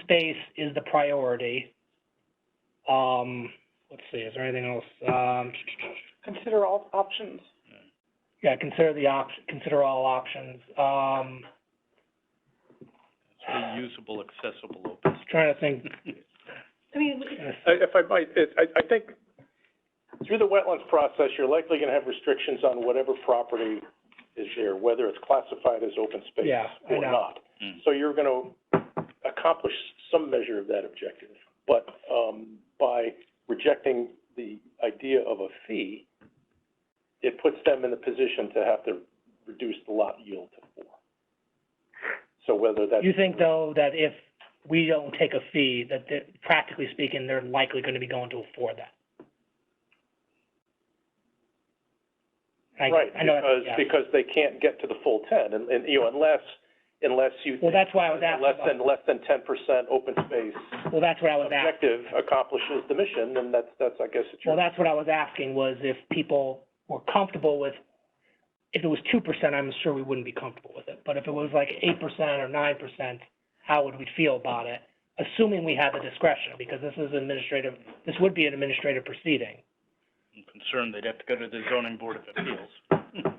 space is the priority. Um, let's see, is there anything else? Um, Consider all options. yeah, consider the op, consider all options. Um, It's reusable, accessible open space. trying to think. I mean, If I might, it, I, I think through the wetlands process, you're likely gonna have restrictions on whatever property is there, whether it's classified as open space Yeah, I or know. not. Mm. So you're gonna accomplish some measure of that objective, but, um, by rejecting the idea of a fee, it puts them in the position to have to reduce the lot yield to four. So whether that's. You think though that if we don't take a fee, that they're, practically speaking, they're likely gonna be going to afford that? I, Right, I know that's- because, yeah. because they can't get to the full ten, and, and, you know, unless, unless you. Well, that's why I was asking Less about, than, less than ten percent open space well, that's what I was asking. objective accomplishes the mission, then that's, that's, I guess, it's Well, your. that's what I was asking, was if people were comfortable with, if it was two percent, I'm sure we wouldn't be comfortable with it. But if it was like eight percent or nine percent, how would we feel about it? Assuming we had the discretion, because this is administrative, this would be an administrative proceeding. I'm concerned they'd have to go to the zoning board of appeals.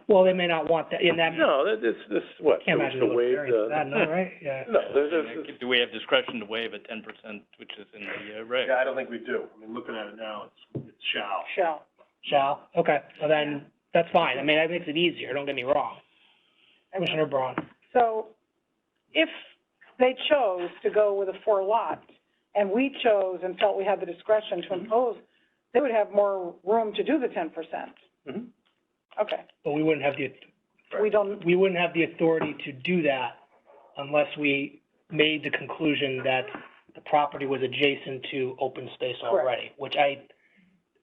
Well, they may not want that, and that, No, that, this, this, what, can't so it's imagine the a way variance the- for that, no, right? Yeah. No, there's, there's- Do we have discretion to waive a ten percent, which is in the uh, reg? Yeah, I don't think we do. I mean, looking at it now, it's, it's shall. shall. Shall, okay, so then, that's fine. I mean, that makes it easier, don't get me wrong. Commissioner Braun. So if they chose to go with a four lot and we chose and felt we had the discretion to impose, they would have more room to do the ten percent. Mhm. Okay, But we wouldn't have the, we don't, we wouldn't have the authority to do that unless we made the conclusion that the property was adjacent to open space already, which I,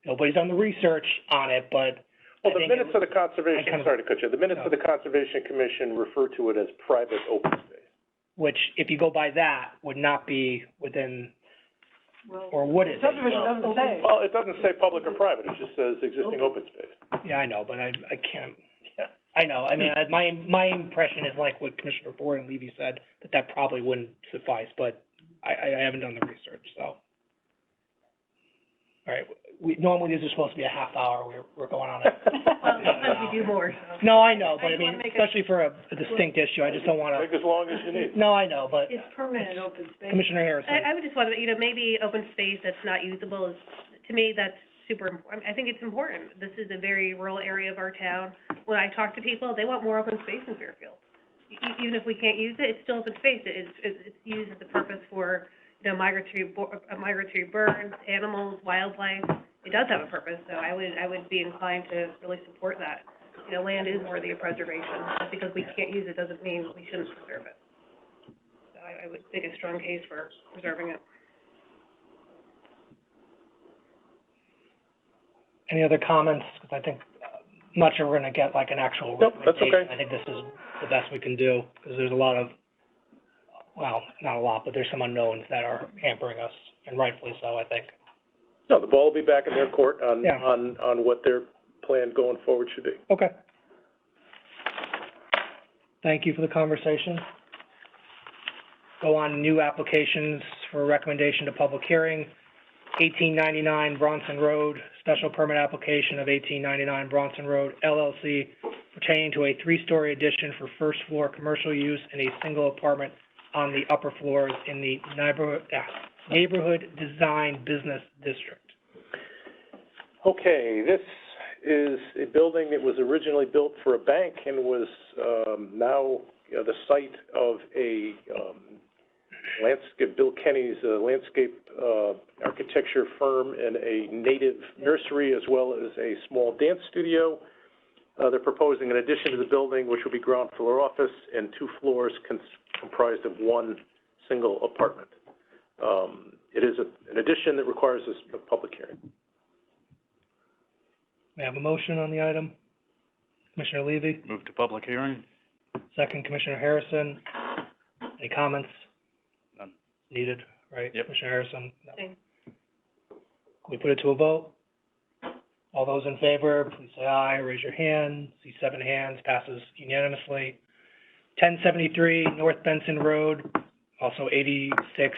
nobody's done the research on it, but I well, the think it minutes of was- I the kind conservation, of- sorry to cut you, the minutes of the conservation commission refer to it as private open space. which, if you go by that, would not be within, well, or would it? be? subdivision doesn't say. Well, it doesn't say public or private, it just says existing open space. Yeah, I know, but I, I can't, Yeah. I know, I mean, I- my, my impression is like what Commissioner Board and Levy said, that that probably wouldn't suffice, but I, I I haven't done the research, so. All right, we, normally this is supposed to be a half hour, we're, we're going on it. Well, sometimes we do more, so. No, I know, but I just wanna mean, make a- especially for a a distinct issue, I just don't wanna, Take as long as you need. no, I know, but It's permanent open space. Commissioner Harrison. I, I would just want to, you know, maybe open space that's not usable is, to me, that's super important. I think it's important. This is a very rural area of our town. When I talk to people, they want more open space in Fairfield. E- e- even if we can't use it, it's still open space. It is, it's, it's used as a purpose for, you know, migratory, bo- uh, migratory birds, animals, wildlife. It does have a purpose, so I would, I would be inclined to really support that. You know, land is worthy of preservation. Just because we can't use it doesn't mean we shouldn't preserve it. So I, I would make a strong case for preserving it. Any other comments? Because I think, uh, I'm not sure we're gonna get like an actual Nope, that's recommendation. okay. I think this is the best we can do, because there's a lot of, well, not a lot, but there's some unknowns that are hampering us, and rightfully so, I think. No, the ball will be back in their court on, Yeah. on, on what their plan going forward should be. Okay. Thank you for the conversation. Go on, new applications for recommendation to public hearing. Eighteen ninety-nine Bronson Road, special permit application of eighteen ninety-nine Bronson Road LLC pertaining to a three-story addition for first-floor commercial use and a single apartment on the upper floors in the neighborhood, ah, neighborhood design business district. Okay, this is a building that was originally built for a bank and was, um, now, you know, the site of a, um, landscape, Bill Kenny's, uh, landscape, uh, architecture firm and a native nursery as well as a small dance studio. Uh, they're proposing an addition to the building, which will be ground floor office and two floors cons- comprised of one single apartment. Um, it is a, an addition that requires a s- a public hearing. We have a motion on the item. Commissioner Levy? Move to public hearing? Second, Commissioner Harrison. Any comments? None. Needed, right? Yep. Commissioner Harrison? No. Same. Can we put it to a vote? All those in favor, please say aye, raise your hand. See seven hands, passes unanimously. Ten seventy-three North Benson Road, also eighty-six